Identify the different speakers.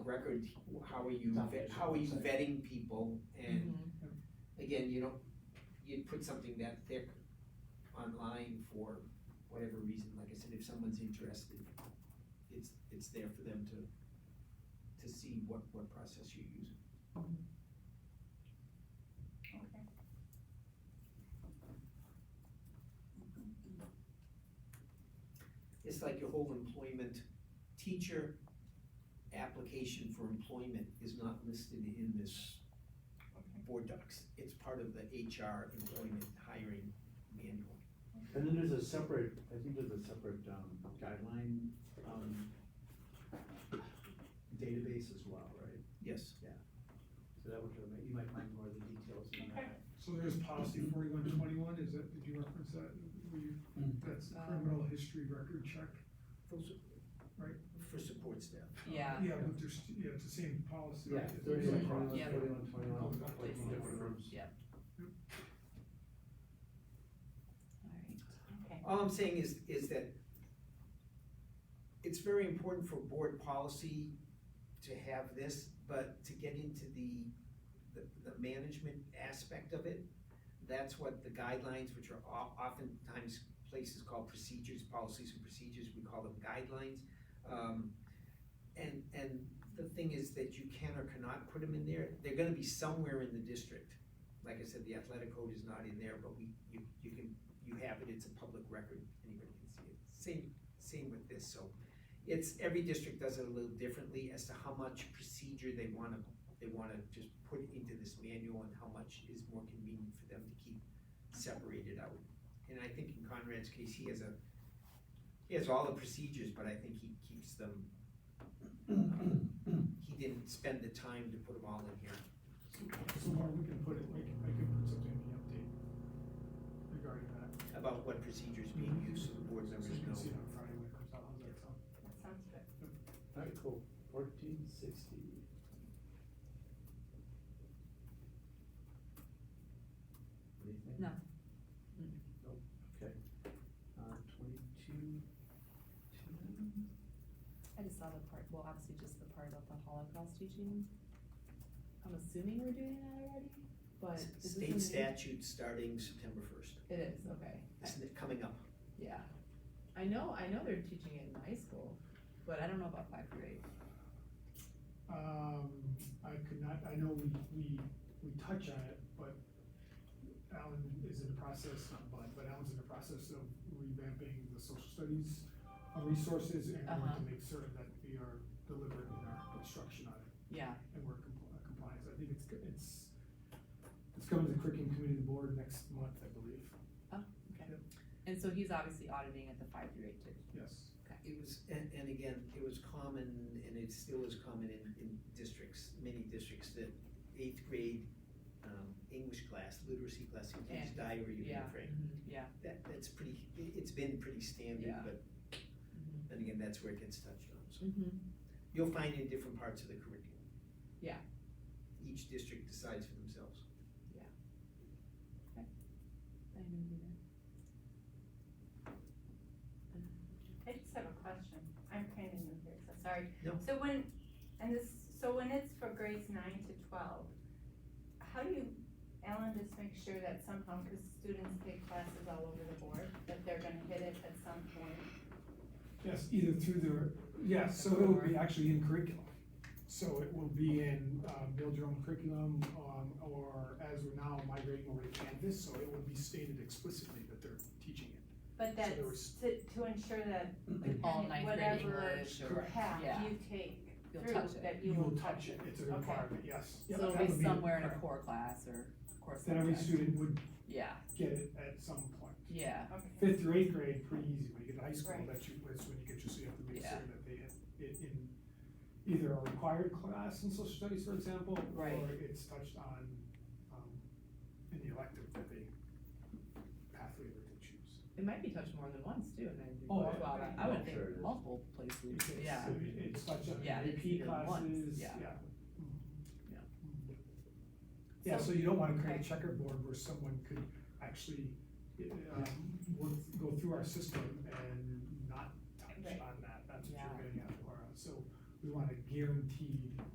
Speaker 1: record, how are you, vet- how are you vetting people? And again, you don't, you'd put something that thick online for whatever reason, like I said, if someone's interested, it's, it's there for them to, to see what, what process you're using.
Speaker 2: Okay.
Speaker 1: It's like your whole employment, teacher application for employment is not listed in this board docs. It's part of the HR employment hiring manual.
Speaker 3: And then there's a separate, I think there's a separate, um, guideline, um, database as well, right?
Speaker 1: Yes.
Speaker 3: So that would, you might find more of the details in that.
Speaker 4: So there's policy forty-one twenty-one, is that, did you reference that? Were you,
Speaker 3: Hmm.
Speaker 4: that's the criminal history record check?
Speaker 1: For su-
Speaker 4: Right.
Speaker 1: For support staff.
Speaker 2: Yeah,
Speaker 5: Um,
Speaker 4: Yeah, but there's, yeah, it's the same policy.
Speaker 3: Yeah,
Speaker 4: right?
Speaker 3: thirty,
Speaker 2: Yeah.
Speaker 3: twenty-one,
Speaker 2: Yeah.
Speaker 3: forty-one, twenty-one, like in
Speaker 2: Places.
Speaker 3: different rooms.
Speaker 2: alright,
Speaker 1: All I'm saying is, is that it's very important for board policy to have this, but to get into the, the, the management aspect of it, that's what the guidelines, which are o- oftentimes places call procedures, policies and procedures, we call them guidelines. Um, and, and the thing is that you can or cannot put them in there, they're gonna be somewhere in the district. Like I said, the athletic code is not in there, but we, you, you can you have it, it's a public record, anybody can see it. Same, same with this, so it's, every district does it a little differently as to how much procedure they wanna, they wanna just put into this manual and how much is more convenient for them to keep separated out. And I think in Conrad's case, he has a, he has all the procedures, but I think he keeps them, um, he didn't spend the time to put them all in here.
Speaker 4: So Mark, we can put it, we can, I can put something in the update regarding that,
Speaker 1: About what procedures being used, so the board
Speaker 4: so
Speaker 1: members
Speaker 4: you can see
Speaker 1: know.
Speaker 4: it on Friday when it comes out, how's that sound?
Speaker 2: that sounds good.
Speaker 3: Alright, cool, fourteen sixty. What do you think?
Speaker 2: No.
Speaker 5: Mm-hmm.
Speaker 2: Mm.
Speaker 3: Nope, okay. Uh, twenty-two, ten?
Speaker 5: I just saw the part, well, obviously just the part about the Holocaust teaching. I'm assuming we're doing that already, but this is. a new-
Speaker 1: State statute starting September first,
Speaker 5: It is, okay,
Speaker 1: isn't it coming up?
Speaker 5: yeah. I know, I know they're teaching it in high school, but I don't know about five grade.
Speaker 4: Um, I could not, I know we, we, we touch on it, but Alan is in the process, not Bud, but Alan's in the process of revamping the social studies uh, resources and we want
Speaker 5: Uh-huh.
Speaker 4: to make certain that we are delivering our instruction on it
Speaker 5: Yeah,
Speaker 4: and we're compl- uh, compliant. I think it's, go- it's, it's coming to the curriculum committee of the board next month, I believe,
Speaker 5: and so he's obviously auditing at the five through eight too.
Speaker 4: yes.
Speaker 1: It was, and, and again, it was common, and it still is common in, in districts, many districts, that eighth grade, um, English class, literacy class, you teach
Speaker 5: And-
Speaker 1: diary, you
Speaker 5: yeah.
Speaker 1: refrain.
Speaker 5: Mm-hmm. Yeah,
Speaker 1: That, that's pretty, it, it's been pretty standard,
Speaker 5: Yeah.
Speaker 1: but,
Speaker 5: Mhm.
Speaker 1: then again, that's where it gets touched on, so.
Speaker 5: mm-hmm,
Speaker 1: You'll find in different parts of the curriculum.
Speaker 5: Yeah.
Speaker 1: Each district decides for themselves.
Speaker 5: I didn't do
Speaker 2: I just have a question, I'm kind of new here, so sorry.
Speaker 1: No.
Speaker 2: So when, and this, so when it's for grades nine to twelve, how do you, Alan, just make sure that somehow, because students take classes all over the board, that they're gonna hit it at some point?
Speaker 4: Yes, either through the, yes, so it will be actually in curriculum. So it will be in, um, build your own curriculum, um, or as we're now migrating over to Canvas, so it will be stated explicitly that they're teaching it.
Speaker 2: But that's
Speaker 4: there was-
Speaker 2: to, to ensure that
Speaker 5: that. All ninth grade
Speaker 2: Whatever
Speaker 5: English or,
Speaker 4: Correct.
Speaker 2: path
Speaker 5: yeah,
Speaker 2: you take
Speaker 5: you'll
Speaker 2: through,
Speaker 5: touch it.
Speaker 2: that you will touch it.
Speaker 4: It's a
Speaker 2: Okay.
Speaker 4: requirement, yes. Yep,
Speaker 5: So
Speaker 4: that
Speaker 5: it'll
Speaker 4: would
Speaker 5: be somewhere in a
Speaker 4: correct.
Speaker 5: core class or core
Speaker 4: That every
Speaker 5: subject.
Speaker 4: student would
Speaker 5: Yeah,
Speaker 4: get it at some point.
Speaker 5: yeah,
Speaker 2: Okay,
Speaker 4: Fifth or eighth grade, pretty easy, when you get to high school,
Speaker 2: Right.
Speaker 4: that's you, that's when you get your, so you have to make
Speaker 5: Yeah.
Speaker 4: sure that they hit it in either a required class in social studies, for example,
Speaker 5: Right.
Speaker 4: or it's touched on, um, in the elective that they pathway that they choose.
Speaker 5: it might be touched more than once too, and then you
Speaker 4: Oh,
Speaker 5: go, wow,
Speaker 4: yeah.
Speaker 5: I
Speaker 3: I'm
Speaker 5: would think
Speaker 3: sure it is.
Speaker 5: multiple places,
Speaker 4: It's- it's-
Speaker 5: yeah.
Speaker 4: it- It's touched on
Speaker 5: Yeah, it's
Speaker 4: AP
Speaker 5: either once,
Speaker 4: classes, yeah.
Speaker 5: yeah.
Speaker 4: Mm.
Speaker 5: Yeah.
Speaker 4: Yeah, so you don't wanna create a
Speaker 2: Okay.
Speaker 4: checkerboard where someone could actually, um, work, go through our system and not touch
Speaker 2: Right.
Speaker 4: on that, that's what
Speaker 5: Yeah.
Speaker 4: you're getting at, Laura, so we want a guaranteed